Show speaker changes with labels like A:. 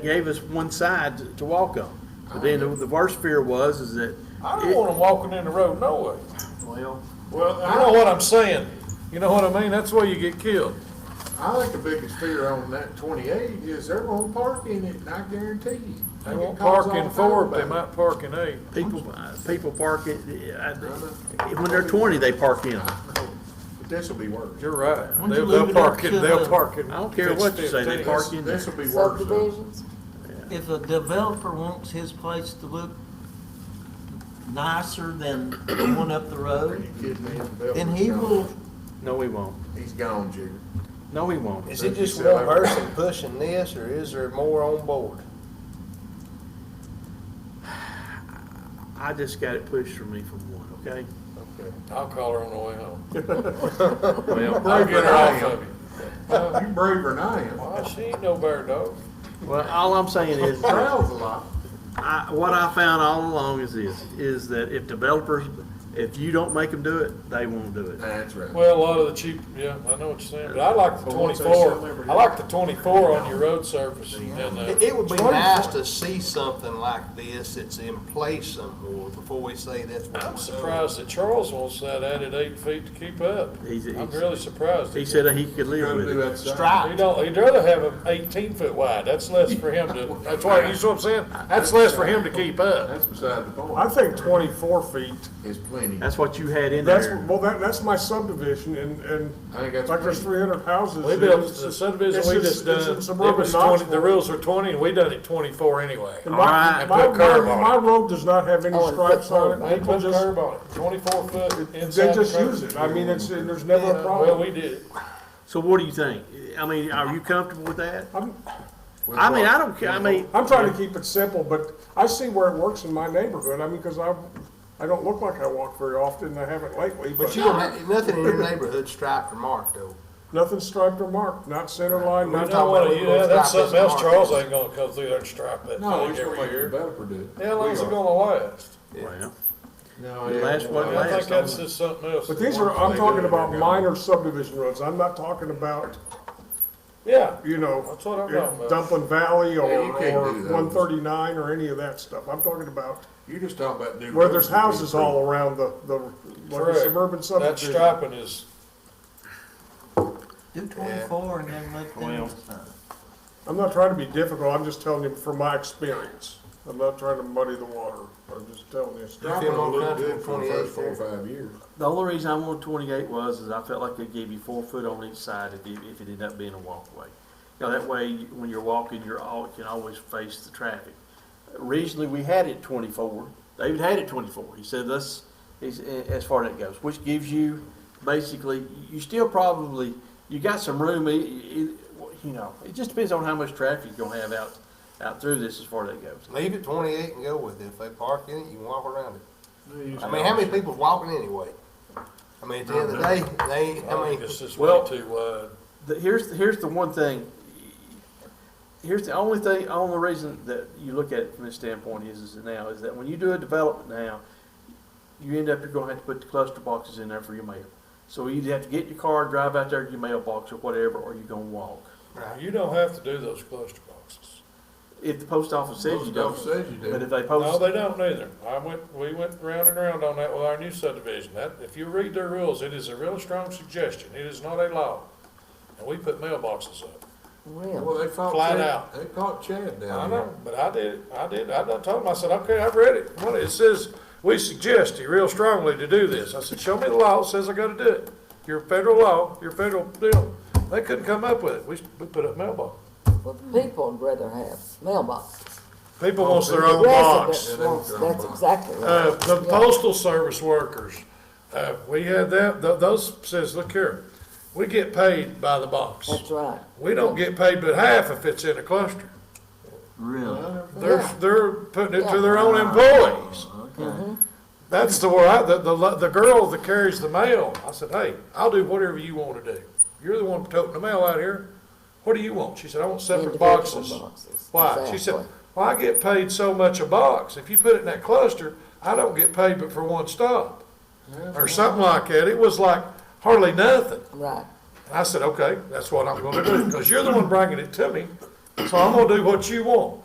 A: gave us one side to- to walk on. But then the the worst fear was is that.
B: I don't
A: it-
B: want them walking in the road, no way.
A: Well,
C: Well,
B: You know
C: I,
B: what I'm saying? You know what I mean? That's where you get killed.
C: I think the biggest fear on that twenty-eight is they're gonna park in it, and I guarantee you.
B: They
C: get
B: won't
C: calls
B: park
C: all the
B: in
C: time
B: four, but they
C: about
B: might park in eight.
A: people, uh, people park it, uh, I- when they're twenty, they park in. I
C: it. But this'll be worse.
B: You're right.
D: When'd
B: They'll,
D: you leave
B: they'll
D: it up
B: park
D: to
B: in, they'll
D: the-
B: park in.
A: don't care what you say, they
B: 15.
A: park in there.
C: This'll be worse. though.
D: subdivisions. If a developer wants his place to look nicer than the one up the
C: Are you
D: road,
C: kidding me?
D: then he will,
A: No, we won't.
C: He's gone, Jigger.
A: No, we won't.
E: Is it just one person pushing this, or is there more on board?
A: I just got it pushed from me from one, okay?
E: Okay.
B: I'll call her on the way home.
A: Well,
B: I'll get her off of you.
C: You braver than I am.
B: Well, she ain't no bear dog.
A: well, all I'm saying is,
C: Frowns a lot.
A: I, what I found all along is this, is that if developers, if you don't make them do it, they won't do it.
C: That's right.
B: Well, a lot of the cheap, yeah, I know what you're saying, but I like the
C: But once they sell
B: twenty-four,
C: everything-
B: I like the twenty-four on your road surface and, uh,
E: It, it would be nice to see something like this that's in place somewhere before we say that's what
B: I'm
E: we're doing.
B: surprised that Charles wants that added eight feet to keep up.
A: He's-
B: I'm
A: he's-
B: really surprised.
A: He said he could live with it.
B: He
C: Ah.
E: Stripe.
B: don't, he'd rather have them eighteen foot wide, that's less for him to, that's why, you see what I'm saying? That's less for him to keep up.
C: That's beside the point.
F: I think twenty-four feet,
C: Is plenty.
A: That's what you had in
F: that's,
A: there.
F: well, that, that's my subdivision, and, and
C: I think that's
F: like there's
C: plenty.
F: three hundred houses.
B: We built,
F: it's
B: the
F: just-
B: subdivision
F: it's
B: we just
F: just-
B: done,
F: it's in
B: it
F: suburban
B: was twenty, the
F: Knoxville.
B: rules are twenty, and we done it twenty-four anyway.
F: And
A: Alright,
F: My, my,
B: put a curb
F: my
B: on
F: my
B: it.
F: road does not have any
E: Oh,
F: stripes on
B: They
F: it,
B: put
F: people
B: a
F: just,
B: curb on it, twenty-four foot inside.
F: they
B: the
F: just
B: curb.
F: use it, I mean, it's, and there's never a
B: Well,
F: problem.
B: we did.
A: So what do you think? I mean, are you comfortable with that?
F: I'm,
A: I mean, I don't care, I mean,
F: I'm trying to keep it simple, but I see where it works in my neighborhood, I mean, cause I, I don't look like I walk very often, and I haven't lately,
E: But
F: but
E: you don't have, nothing in your neighborhood striped or marked though.
F: nothing striped or marked, not center line,
E: We
B: You
F: not.
B: know
E: talking
B: what,
E: about we
B: yeah,
E: gonna
B: that's
E: strap
B: something
E: this
B: else Charles
E: market.
B: ain't gonna come through there and strike that
C: No,
B: thing
C: it's gonna
B: every
C: make a
B: year.
C: developer do it.
B: How long's
C: We
B: it
C: are.
B: gonna last?
A: well,
C: No,
A: It
C: yeah,
A: lasts
C: well,
A: what
B: I
A: lasts.
B: think that's just something else.
F: But these are, I'm talking about minor subdivision roads, I'm not talking about,
B: Yeah,
F: you know. uh,
B: That's what I'm talking about.
F: Dumplin' Valley or,
C: Yeah, you can't
F: or
C: do those.
F: one thirty-nine or any of that stuff, I'm talking about
C: You just talk about new.
F: where
C: roads
F: there's
C: that we
F: houses all around the, the, like a
B: correct.
F: suburban
B: That
F: subdivision.
B: striping is,
D: do twenty-four and then let them decide.
F: I'm not trying to be difficult, I'm just telling you from my experience, I'm not trying to muddy the water, I'm just telling you.
C: improved. Dropping will look good for the first four or five years.
A: The only reason I wanted twenty-eight was, is I felt like they gave you four foot on each side if, you- if it ended up being a walkway. You know, that way, you- when you're walking, you're all, can always face the traffic. Originally, we had it twenty-four, David had it twenty-four, he said, that's, he's, as far as that goes, which gives you, basically, you still probably, you got some room, i- i- you know, it just depends on how much traffic you're gonna have out, out through this as far as that goes.
E: Leave it twenty-eight and go with it. If they park in it, you can walk around it. I mean, how many people's walking anyway? I mean, at the end of the day, they,
B: I
E: I
B: think
E: mean,
B: it's just way
A: Well-
B: too wide.
A: the, here's here's the one thing. Here's the only thing, only reason that you look at it from this standpoint is, is now is that when you do a development now, you end up you're going to have to put the cluster boxes in there for your mail. So you either have to get your car, drive out there to your mailbox or whatever, or you're going to walk.
B: You don't have to do those cluster boxes.
A: If the post office says you don't,
C: Most of them Says you
A: but if
C: do.
A: they
B: No,
A: post,
B: they don't either. I went, we went round and round on that with our new subdivision. That, if you read their rules, it is a real strong suggestion. It is not a law. And we put mailboxes up.
C: Well, they caught
B: Flat
C: Chad,
B: out.
C: they caught Chad
B: I
C: down there.
B: know, but I did, I did, I done told him, I said, okay, I've read it. Well, it says, we suggest you real strongly to do this. I said, show me the law, that says I gotta do it. Your federal law, your federal deal. They couldn't come up with it. We, we put up mailbox.
G: Well, people would rather have mailboxes.
B: People wants their own Oh, box.
G: Residents wants, that's exactly
B: Uh,
G: right.
B: the postal service workers, uh, we had that, th- those says, look here, we get paid by the box.
G: That's right.
B: We don't get paid but half if it's in a cluster.
D: Really?
B: They're,
G: Yeah.
B: they're putting it to their own employees. That's the where I, the, the, lo- the girl that carries the mail, I said, hey, I'll do whatever you want to do. You're the one toting the mail out here. What do you want? She said, I want separate
G: Individual
B: boxes.
G: boxes,
B: Why? She said,
G: exactly.
B: well, I get paid so much a box. If you put it in that cluster, I don't get paid but for one stop. Or something like that. It was like hardly nothing.
G: Right.
B: And I said, okay, that's what I'm gonna do, because you're the one bringing it to me. So I'm gonna do what you want.